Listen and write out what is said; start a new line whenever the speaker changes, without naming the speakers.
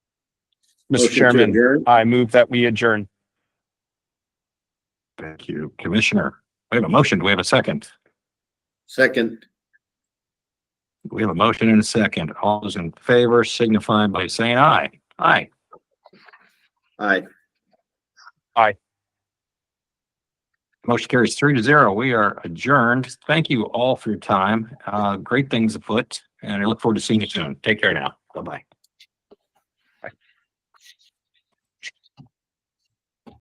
Mr.
Motion to
Chairman,
adjourn.
I move that we adjourn.
Thank you, Commissioner. We have a motion. Do we have a second?
Second,
We have a motion and a second. All those in favor signify by saying aye. Aye.
aye.
Motion carries three to zero. We are adjourned. Thank you all for your time. Uh, great things afoot and I look forward to seeing you soon. Take care now. Bye-bye.